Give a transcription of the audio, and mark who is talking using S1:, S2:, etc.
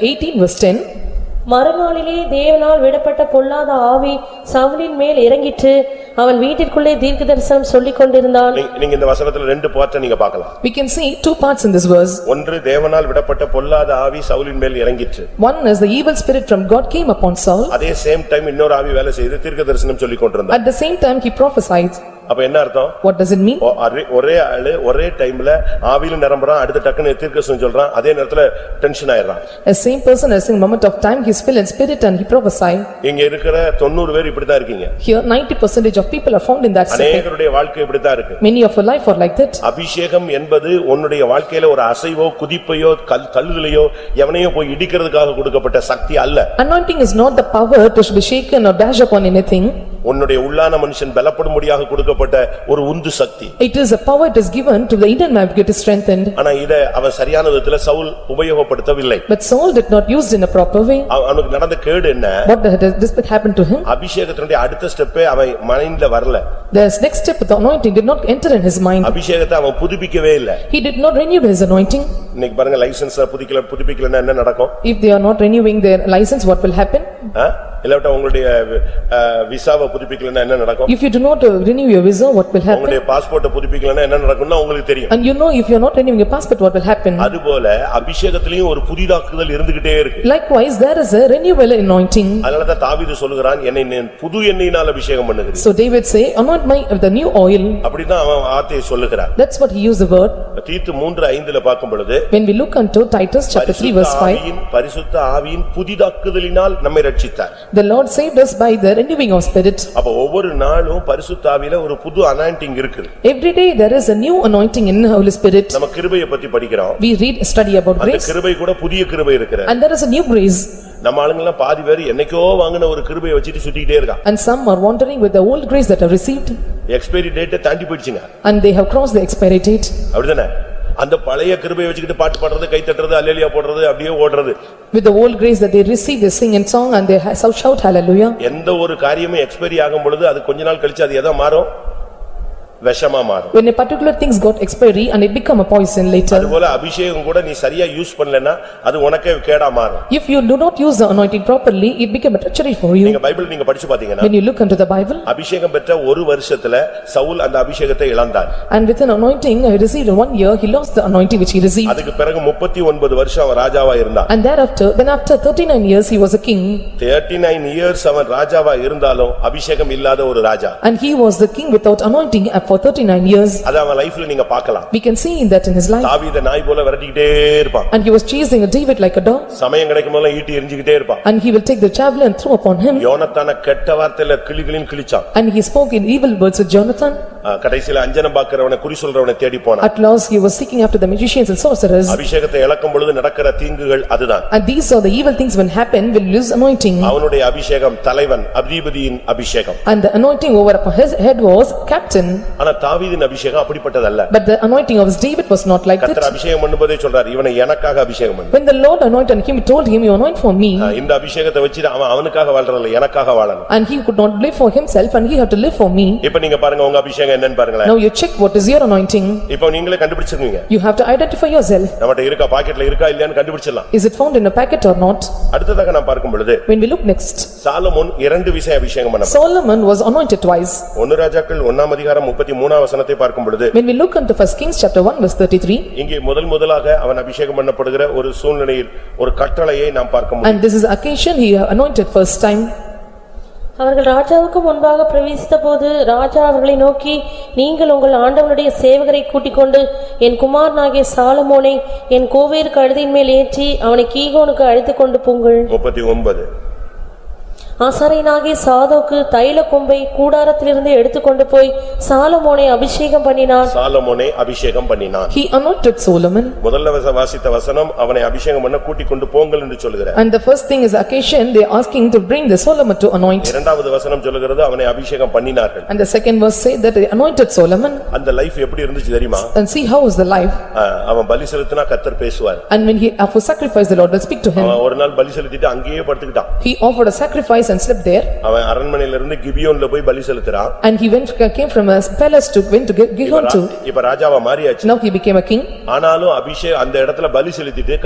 S1: 18 verse 10,
S2: மறுநாளிலே தேவனால் விடப்பட்ட பொல்லாத ஆவி சவுலின் மேல் இறங்கிற்று அவன் வீட்டிற்குள்ளே தீர்க்க தரிசனம் சொல்லிக் கொண்டிருந்தான்
S3: நீ- நீங்க இந்த வசனத்துல ரெண்டு பார்ட்ட நீங்க பார்க்கலாம்
S1: we can see two parts in this verse.
S3: ஒன்று தேவனால் விடப்பட்ட பொல்லாத ஆவி சவுலின் மேல் இறங்கிற்று
S1: One is the evil spirit from God came upon Saul.
S3: அதே சேம் டைம் இன்னொரு ஆவி வேலை செய்து தீர்க்க தரிசனம் சொல்லி கொண்டிருந்தா
S1: At the same time, he prophesied.
S3: அப்ப என்ன அர்த்தம்
S1: What does it mean?
S3: ஒ- அரே- ஒரே ஆளு ஒரே டைம்ல ஆவியிலும் நிரம்புறான் அடுத்த டக்குன்னு தீர்க்கதரிசனம் சொல்றான் அதே நேரத்துல டென்ஷன் ஆயிடுறான்
S1: A same person as in moment of time, he is filled in spirit and he prophesied.
S3: இங்க இருக்கிற தொண்ணூறு பேர் இப்படித்தான் இருக்கீங்க
S1: Here, 90 percentage of people are found in that setting.
S3: அநேகருடைய வாழ்க்கை இப்படித்தான் இருக்கு
S1: Many of your life are like that.
S3: அபிஷேகம் என்பது உன்னுடைய வாழ்க்கையில ஒரு அசைவோ குதிப்பையோ கல் தழுதலையோ எவனையோ போய் இடிக்கிறதுக்காக கொடுக்கப்பட்ட சக்தி அல்ல
S1: Anointing is not the power to be shaken or dash upon anything.
S3: உன்னுடைய உள்ளான மனுஷன் பலப்படும்படியாக கொடுக்கப்பட்ட ஒரு உந்து சக்தி
S1: It is a power that is given to the inner man to get strengthened.
S3: ஆனா இத அவன் சரியான விதத்துல Saul உபயோகப்படுத்தவில்லை
S1: But Saul did not use it in a proper way.
S3: அவ- அவனுக்கு நடந்த கேடு என்ன
S1: What the- this that happened to him?
S3: அபிஷேகத்தினுடைய அடுத்த ஸ்டெப்பே அவன் மைண்ட்ல வரல
S1: The next step of the anointing did not enter in his mind.
S3: அபிஷேகத்தை அவன் புதுப்பிக்கவே இல்ல
S1: He did not renew his anointing.
S3: இன்னைக்கு பாருங்க லைசன்ஸ் புதுப்பிக்கல புதுப்பிக்கலன்னா என்ன நடக்கும்
S1: If they are not renewing their license, what will happen?
S3: ஆ? இல்லாவிட்டா உங்களுடைய அஹ், விசாவை புதுப்பிக்கலன்னா என்ன நடக்கும்
S1: If you do not uh, renew your visa, what will happen?
S3: உங்களுடைய பாஸ்போர்ட்டை புதுப்பிக்கலன்னா என்ன நடக்கும்னா உங்களுக்கு தெரியும்
S1: And you know, if you are not renewing your passport, what will happen?
S3: அதுபோல அபிஷேகத்திலையும் ஒரு புதிதாக்குதல் இருந்துகிட்டே இருக்கு
S1: Likewise, there is a renewal anointing.
S3: அதனாலதான் தாவீது சொல்லுகிறான் என்னை நீ புது எண்ணெயினால் அபிஷேகம் பண்ணுகிறேன்
S1: So David say, anoint my, with the new oil.
S3: அப்படிதான் அவன் வார்த்தையை சொல்லுகிறான்
S1: That's what he used the word.
S3: தீத்து மூன்று ஐந்துல பார்க்கும் பொழுது
S1: When we look unto Titus chapter 3 verse
S3: பரிசுத்த
S1: 5,
S3: ஆவியின் பரிசுத்த ஆவியின் புதிதாக்குதலினால் நம்மை ரட்சித்தார்
S1: the Lord saved us by the renewing of spirit.
S3: அப்ப ஒவ்வொரு நாளும் பரிசுத்த ஆவியில ஒரு புது அனாயிண்டிங் இருக்குது
S1: Every day, there is a new anointing in Holy Spirit.
S3: நம்ம கிருபையை பத்தி படிக்கிறோம்
S1: We read, study about
S3: அந்த
S1: grace
S3: கிருபை கூட புதிய கிருபை இருக்கிற
S1: and there is a new grace.
S3: நம்ம ஆளுங்க எல்லாம் பாதி பேர் என்னைக்கோ வாங்கின ஒரு கிருபையை வச்சுட்டு சுத்திக்கிட்டே இருக்கான்
S1: And some are wandering with the old grace that are received
S3: expiry டேட்டை தாண்டி போயிடுச்சுங்க
S1: and they have crossed the expiry date.
S3: அப்படிதானே அந்த பழைய கிருபையை வச்சுக்கிட்டு பாட்டு பாடுறது கை தட்டுறது அல்லேலியா போடுறது அப்படியே ஓடுறது
S1: With the old grace that they receive, they sing and song and they ha- shout hallelujah.
S3: எந்த ஒரு காரியமும் எக்ஸ்பைரி ஆகும் பொழுது அது கொஞ்ச நாள் கழிச்சு அது எதா மாறும் விஷமா மாறும்
S1: When a particular things got expiry and it become a poison later.
S3: அதுபோல அபிஷேகம் கூட நீ சரியா யூஸ் பண்ணலன்னா அது உனக்கே கேடா மாறும்
S1: If you do not use the anointing properly, it become a treachery for you.
S3: நீங்க பைபிள் நீங்க படிச்சு பாத்தீங்கன்னா
S1: When you look into the Bible
S3: அபிஷேகம் பெற்ற ஒரு வருஷத்துல சவுல் அந்த அபிஷேகத்தை இழந்தார்
S1: and with an anointing he received in one year, he lost the anointing which he received.
S3: அதுக்கு பிறகு முப்பத்தி ஒன்பது வருஷம் அவன் ராஜாவா இருந்தான்
S1: And thereafter, then after thirty-nine years, he was a king
S3: thirty nine years அவன் ராஜாவா இருந்தாலும் அபிஷேகம் இல்லாத ஒரு ராஜா
S1: and he was the king without anointing uh, for thirty-nine years.
S3: அது அவன் லைஃப்ல நீங்க பார்க்கலாம்
S1: We can see that in his life
S3: தாவீத நாய் போல விரட்டிக்கிட்டே இருப்பான்
S1: and he was chasing David like a dog
S3: சமயம் கிடைக்கும் போதெல்லாம் ஈட்டி எரிஞ்சுக்கிட்டே இருப்பான்
S1: and he will take the javelin and throw upon him
S3: யோனத்தான கெட்ட வார்த்தையில கிளிகளின் கிழிச்சான்
S1: and he spoke in evil words with Jonathan.
S3: அஹ் கடைசியில அஞ்சனம் பாக்குறவனை குறி சொல்றவனை தேடி போனான்
S1: At last, he was seeking after the magicians and sorcerers.
S3: அபிஷேகத்தை இழக்கும் பொழுது நடக்கிற தீங்குகள் அதுதான்
S1: And these are the evil things when happen, will lose anointing.
S3: அவனுடைய அபிஷேகம் தலைவன் அதிபதியின் அபிஷேகம்
S1: And the anointing over upon his head was captain.
S3: ஆனா தாவீதின் அபிஷேகம் அப்படிப்பட்டதல்ல
S1: But the anointing of David was not like
S3: கர்த்தர்
S1: that.
S3: அபிஷேகம் பண்ணும்போதே சொல்றார் இவனை எனக்காக அபிஷேகம் பண்ணு
S1: When the Lord anointed him, he told him, "You anoint for me."
S3: அஹ் இந்த அபிஷேகத்தை வச்சு அவன் அவனுக்காக வாழ்றதில்ல எனக்காக வாழணும்
S1: And he could not live for himself and he had to live for me.
S3: இப்ப நீங்க பாருங்க உங்க அபிஷேகம் என்னன்னு பாருங்களேன்
S1: Now you check what is your anointing.
S3: இப்ப நீங்களே கண்டுபிடிச்சிருக்கீங்க
S1: You have to identify yourself.
S3: நம்மகிட்ட இருக்கா பாக்கெட்ல இருக்கா இல்லையான்னு கண்டுபிடிச்சிடலாம்
S1: Is it found in a packet or not?
S3: அடுத்ததாக நான் பார்க்கும் பொழுது
S1: When we look next,
S3: சாலமோன் இரண்டு விசை அபிஷேகம் பண்ண
S1: Solomon was anointed twice.
S3: ஒன்னு ராஜாக்கள் ஒன்னாம் அதிகாரம் முப்பத்தி மூணாம் வசனத்தை பார்க்கும் பொழுது
S1: When we look into first Kings chapter one verse thirty-three,
S3: இங்கே முதல் முதலாக அவன் அபிஷேகம் பண்ணப்படுகிற ஒரு சூழ்நிலையில் ஒரு கட்டளையை நாம் பார்க்க முடியும்
S1: and this is occasion he anointed first time.
S2: அவர்கள் ராஜாவுக்கு முன்பாக பிரவேசித்தபோது ராஜா அவர்களை நோக்கி நீங்கள் உங்கள் ஆண்டவனுடைய சேவகரை கூட்டிக் கொண்டு என் குமாரனாகிய சாலமோனை என் கோவேறு கழுதின் மேல் ஏற்றி அவனை கீகோனுக்கு அழைத்துக் கொண்டு போங்கள்
S3: முப்பத்தி ஒன்பது
S2: ஆசாரியனாகிய சாதோக்கு தைல கொம்பை கூடாரத்திலிருந்து எடுத்துக்கொண்டு போய் சாலமோனை அபிஷேகம் பண்ணினான்
S3: சாலமோனை அபிஷேகம் பண்ணினான்
S1: He anointed Solomon.
S3: முதல்ல வச- வாசித்த வசனம் அவனை அபிஷேகம் பண்ண கூட்டிக் கொண்டு போங்கள் என்று சொல்லுகிற
S1: And the first thing is occasion, they are asking to bring the Solomon to anoint.
S3: இரண்டாவது வசனம் சொல்லுகிறது அவனை அபிஷேகம் பண்ணினார்கள்
S1: And the second verse say that they anointed Solomon
S3: அந்த லைஃப் எப்படி இருந்துச்சு தெரியுமா
S1: and see how is the life.
S3: அஹ் அவன் பலி செலுத்தினா கத்தர் பேசுவார்
S1: And when he offered sacrifice, the Lord will speak to him.
S3: அவன் ஒரு நாள் பலி செலுத்திட்டு அங்கேயே படுத்துக்கிட்டான்
S1: He offered a sacrifice and slept there.
S3: அவன் அரண்மனையில இருந்து கிபியோன்ல போய் பலி செலுத்துறான்
S1: And he went, came from a palace to, went to Gi- Gihon
S3: raw-
S1: to.
S3: இப்ப ராஜாவா மாறியாச்சு
S1: Now he became a king.
S3: ஆனாலும் அபிஷேக் அந்த இடத்துல பலி செலுத்திட்டு